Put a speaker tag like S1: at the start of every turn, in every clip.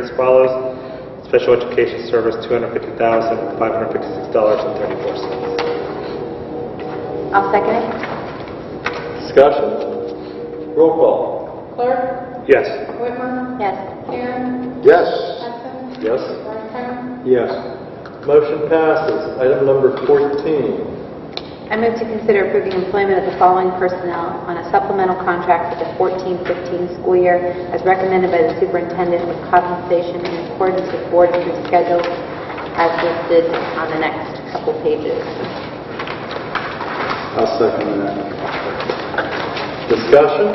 S1: as follows. Special Education Service, $250,556.34.
S2: I'll second it.
S3: Discussion? Roll call.
S4: Clark,
S1: Yes.
S4: Whitmer,
S2: Yes.
S4: Karen,
S5: Yes.
S4: Hudson,
S3: Yes?
S4: Martin,
S3: Yes. Motion passes. Item number 14.
S2: I move to consider approving employment of the following personnel on a supplemental contract for the 14-15 school year as recommended by the superintendent with compensation in accordance with board approved schedule as listed on the next couple pages.
S5: I'll second that.
S3: Discussion?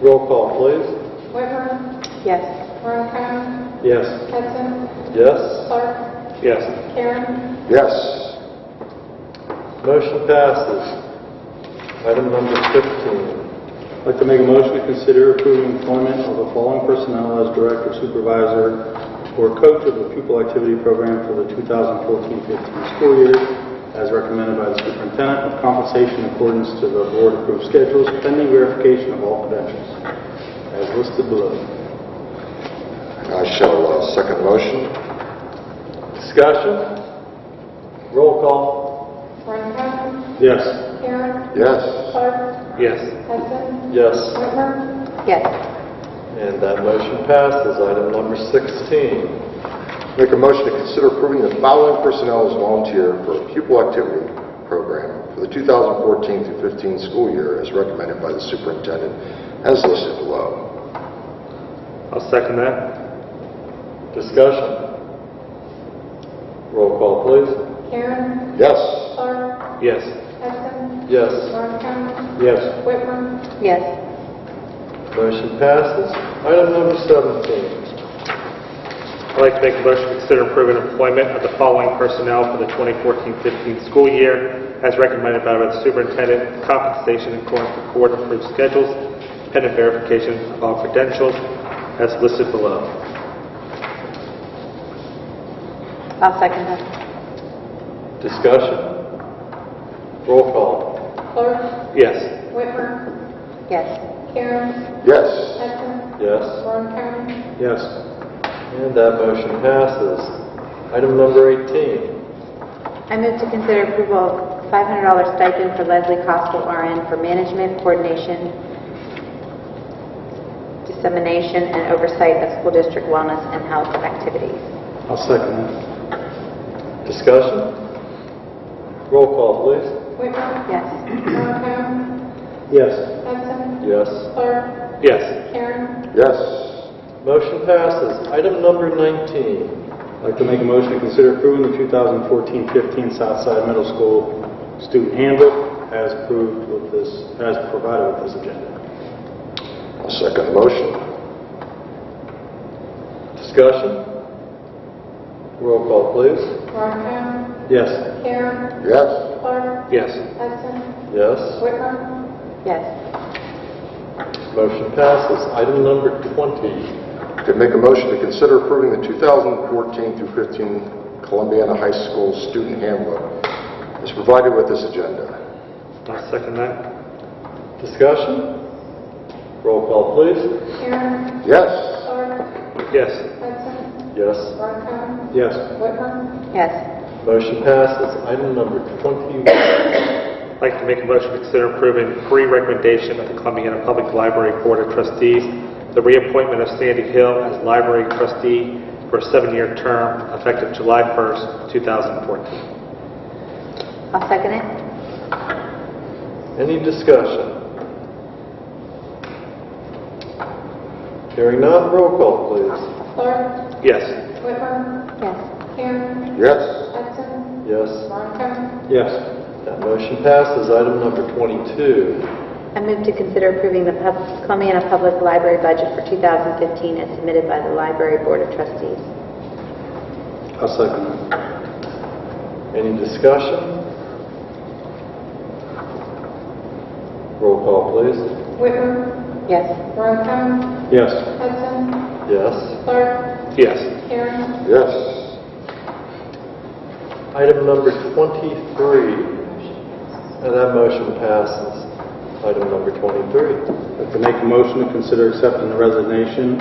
S3: Roll call,
S4: Whitmer,
S2: Yes.
S4: Martin,
S3: please. Yes.
S4: Hudson,
S3: Yes?
S4: Clark,
S1: Yes.
S4: Karen,
S5: Yes.
S3: Motion passes. Item number 15.
S5: I'd like to make a motion to consider approving employment of the following personnel as director, supervisor, or coach of the pupil activity program for the 2014-15 school year as recommended by the superintendent with compensation in accordance to the board approved schedules pending verification of all credentials as listed below.
S6: I shall uh, second motion.
S3: Discussion? Roll call.
S4: Martin,
S5: Yes.
S4: Karen,
S6: Yes.
S4: Clark,
S1: Yes.
S4: Hudson,
S3: Yes.
S4: Whitmer,
S2: Yes.
S3: And that motion passes. Item number 16.
S6: Make a motion to consider approving the following personnel as volunteer for a pupil activity program for the 2014 through 15 school year as recommended by the superintendent as listed below.
S1: I'll second that.
S3: Discussion? Roll call, please.
S4: Karen,
S6: Yes.
S4: Clark,
S1: Yes.
S4: Hudson,
S3: Yes.
S4: Martin,
S3: Yes.
S4: Whitmer,
S2: Yes.
S3: Motion passes. Item number 17.
S1: I'd like to make a motion to consider approving employment of the following personnel for the 2014-15 school year as recommended by the superintendent, with compensation in accordance with board approved schedules, pending verification of all credentials as listed below.
S2: I'll second that.
S3: Discussion? Roll call.
S4: Clark,
S1: Yes.
S4: Whitmer,
S2: Yes.
S4: Karen,
S6: Yes.
S4: Hudson,
S3: Yes.
S4: Martin,
S5: Yes.
S3: And that motion passes. Item number 18.
S2: I move to consider approval of $500 stipend for Leslie Costello RN for management, coordination, dissemination, and oversight of school district wellness and health activities.
S5: I'll second that.
S3: Discussion? Roll call,
S4: Whitmer,
S2: Yes.
S4: Martin,
S5: Yes.
S4: Hudson,
S3: please. Yes.
S4: Clark,
S1: Yes.
S4: Karen,
S6: Yes.
S3: Motion passes. Item number 19.
S5: I'd like to make a motion to consider approving the 2014-15 Southside Middle School student handbook as approved with this, as provided with this agenda.
S6: I'll second motion.
S3: Discussion? Roll call, please.
S4: Martin,
S5: Yes.
S4: Karen,
S6: Yes.
S4: Clark,
S1: Yes.
S4: Hudson,
S3: Yes.
S4: Whitmer,
S2: Yes.
S3: Motion passes. Item number 20.
S6: To make a motion to consider approving the 2014 through 15 Columbiana High School student handbook as provided with this agenda.
S1: I'll second that.
S3: Discussion? Roll call, please.
S4: Karen,
S6: Yes.
S4: Clark,
S1: Yes.
S4: Hudson,
S3: Yes.
S4: Martin,
S5: Yes.
S4: Whitmer,
S2: Yes.
S3: Motion passes. Item number 21.
S1: I'd like to make a motion to consider approving pre-recommendation of the Columbiana Public Library Board of Trustees, the reappointment of Sandy Hill as library trustee for a seven-year term effective July 1st, 2014.
S2: I'll second it.
S3: Any discussion? Hearing none, roll call, please.
S4: Clark,
S1: Yes.
S4: Whitmer,
S2: Yes.
S4: Karen,
S6: Yes.
S4: Hudson,
S3: Yes.
S4: Martin,
S5: Yes.
S3: That motion passes. Item number 22.
S2: I move to consider approving the Pub- Columbiana Public Library budget for 2015 as submitted by the Library Board of Trustees.
S5: I'll second that.
S3: Any discussion? Roll call, please.
S4: Whitmer,
S2: Yes.
S4: Martin,
S5: Yes.
S4: Hudson,
S3: Yes.
S4: Clark,
S1: Yes.
S4: Karen,
S6: Yes.
S3: Item number 23. And that motion passes. Item number 23.
S5: I'd like to make a motion to consider accepting the resignation